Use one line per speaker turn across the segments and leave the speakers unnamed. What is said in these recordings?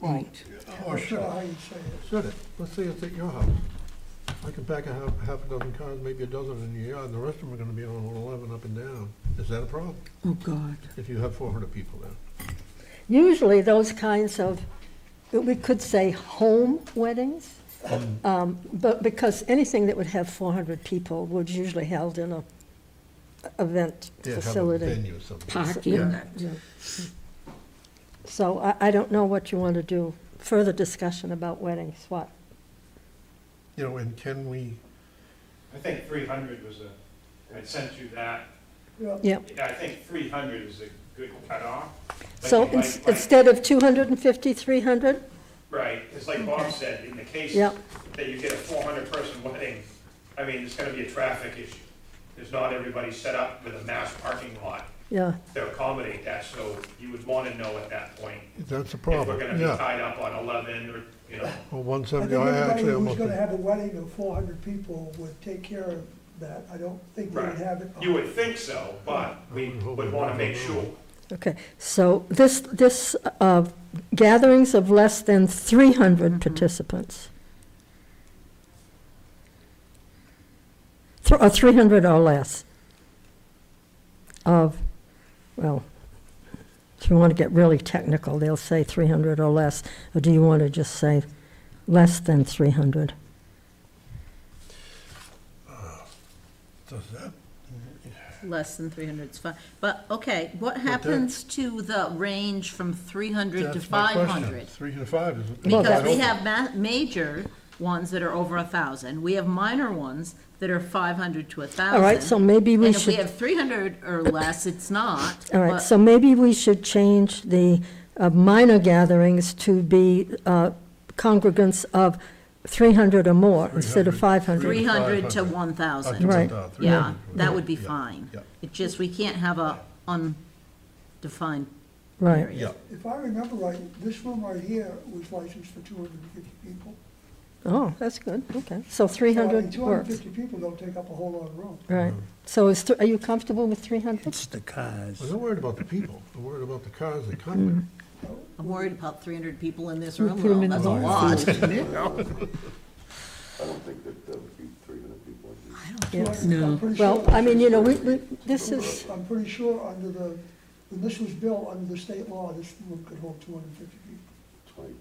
Right.
Or
Or
should
should
I?
I?
How you say it.
Should it? Let's say it's at your house. I can pack a half, half a dozen cars, maybe a dozen in your yard, and the rest of them are gonna be on Route eleven up and down. Is that a problem?
Oh, God.
If you have four hundred people there?
Usually those kinds of, we could say home weddings,
Mm-hmm.
um, but because anything that would have 400 people would usually held in a event
Yeah, have a
facility.
venue or something.
parking.
Yeah. So I, I don't know what you want to do, further discussion about weddings, what?
You know, and can we,
I think three hundred was a, I sent you that,
Yeah.
Yeah.
yeah, I think three hundred is a good cutoff. But
So
you might-
ins- instead of 250, 300?
Right, it's like Bob said, in the case
Yeah.
that you get a four hundred person wedding, I mean, it's gonna be a traffic issue. There's not everybody set up with a mass parking lot
Yeah,
to accommodate that, so you would wanna know at that point.
that's a
If we're
problem,
gonna be
yeah.
tied up on eleven or, you know,
Well,
I
one
think
seventy, I
anybody
actually
who's
almost,
gonna have a wedding of four hundred people would take care of that. I don't think they'd
Right.
have it.
you would think so, but we would wanna make sure.
okay. So this, this uh, gatherings of less than 300 participants. Thr- Or 300 uh, or less of, well, if you want to get really technical, they'll say 300 or less. Or do you want to just say less than 300?
does that,
Less than 300 is fine, but, okay, what
that-
happens to the range from 300 to
that's my question.
500?
Three to five is. is
Because
wide
we
open.
have ma- major ones that are over 1,000, we have minor ones that are 500 to 1,000.
All right, so maybe we
And if we
should.
have 300 or less, it's not.
All right,
but-
so maybe we should change the uh, minor gatherings to be uh, congregants of 300 or more instead of
300.
500.
300 to 1,000.
Right.
Yeah, that would be
Yeah,
fine.
yeah.
It just, we can't have a undefined
Right,
period.
If I remember right, this room right here was licensed for two hundred and fifty people.
oh, that's good, okay. So
So, I mean,
300
two hundred and
works,
fifty people don't take up a whole lot of room.
right. So is, th- are you comfortable with 300?
It's the cars.
I'm not worried about the people, I'm worried about the cars that come there.
Mm-hmm. I'm worried about 300 people in this
We
room,
put 'em
though.
in
that's a
the
lot.
I don't think that that would be three hundred people.
Yeah.
No.
Well, I mean, you know, we, we, this is,
I'm pretty sure under the, when this was built, under the state law, this room could hold two hundred and fifty people.
Twenty,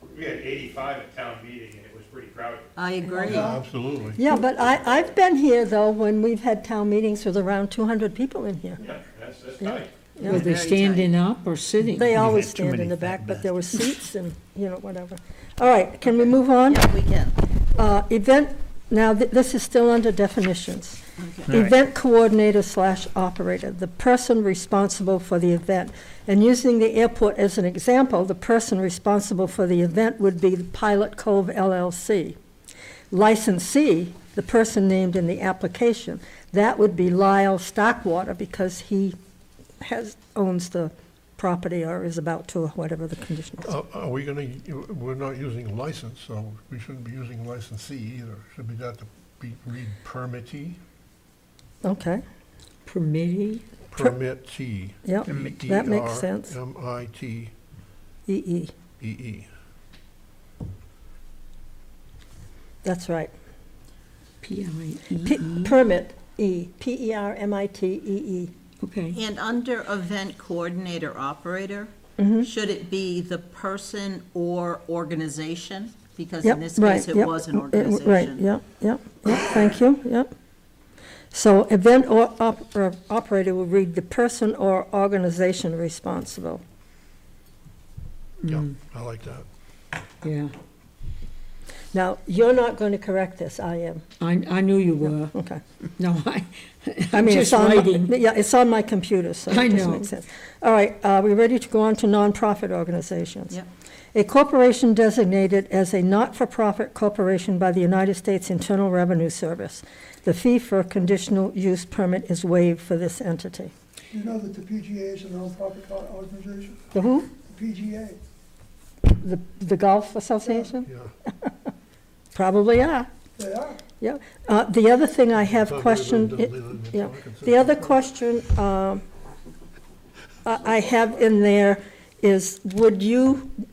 twenty.
We had eighty-five at town meeting and it was pretty crowded.
I agree.
Yeah, Absolutely.
yeah, but I, I've been here, though, when we've had town meetings with around 200 people in here.
Yeah, that's, that's tight.
Yeah.
Were they standing up or sitting?
They always
had too
stand in
many
the
fat
back, but there were seats and, you know, whatever. All right, can we move on?
Yeah, we can.
Uh, Event, now, th- this is still under definitions.
Okay.
All right.
Event coordinator slash operator, the person responsible for the event. And using the airport as an example, the person responsible for the event would be Pilot Cove LLC. Licensee, the person named in the application, that would be Lyle Stockwater because he has, owns the property or is about to, or whatever the condition is.
Uh, Are we gonna, we're not using license, so we shouldn't be using licensee either. Should be that to be, read permittee,
Okay,
Permittee?
permittee. E
yep, that makes sense.
P-E-R-M-I-T-E-E.
EE,
E
that's right.
P I E
P-
E,
Permit, E, P-E-R-M-I-T-E-E.
okay.
And under event coordinator operator,
Mm-hmm.
should it be the person or organization? Because
Yep,
in this
right,
case, it
yep,
was an
uh, Right,
organization.
yep, yep, yep, thank you, yep. So event or op- or operator will read the person or organization responsible.
Yeah,
Mm.
I like that.
Yeah,
Now, you're not going to correct this, I am,
I, I knew you were.
okay.
No, I,
I
I'm
mean, it's
just
on my-
writing.
Yeah, it's on my computer, so
I
it doesn't
know.
make sense. All right, are we ready to go on to nonprofit organizations?
Yep.
A corporation designated as a not-for-profit corporation by the United States Internal Revenue Service. The fee for a conditional use permit is waived for this entity.
Do you know that the PGA is a nonprofit co- organization?
The who?
The PGA.
The, the Golf Association?
Yeah,
Probably are,
They are.
yeah. Uh, the other thing I have
Thought we were
questioned,
gonna do it later in the
yeah,
talk and
the other
stuff.
question, um, I, I have in there is, would you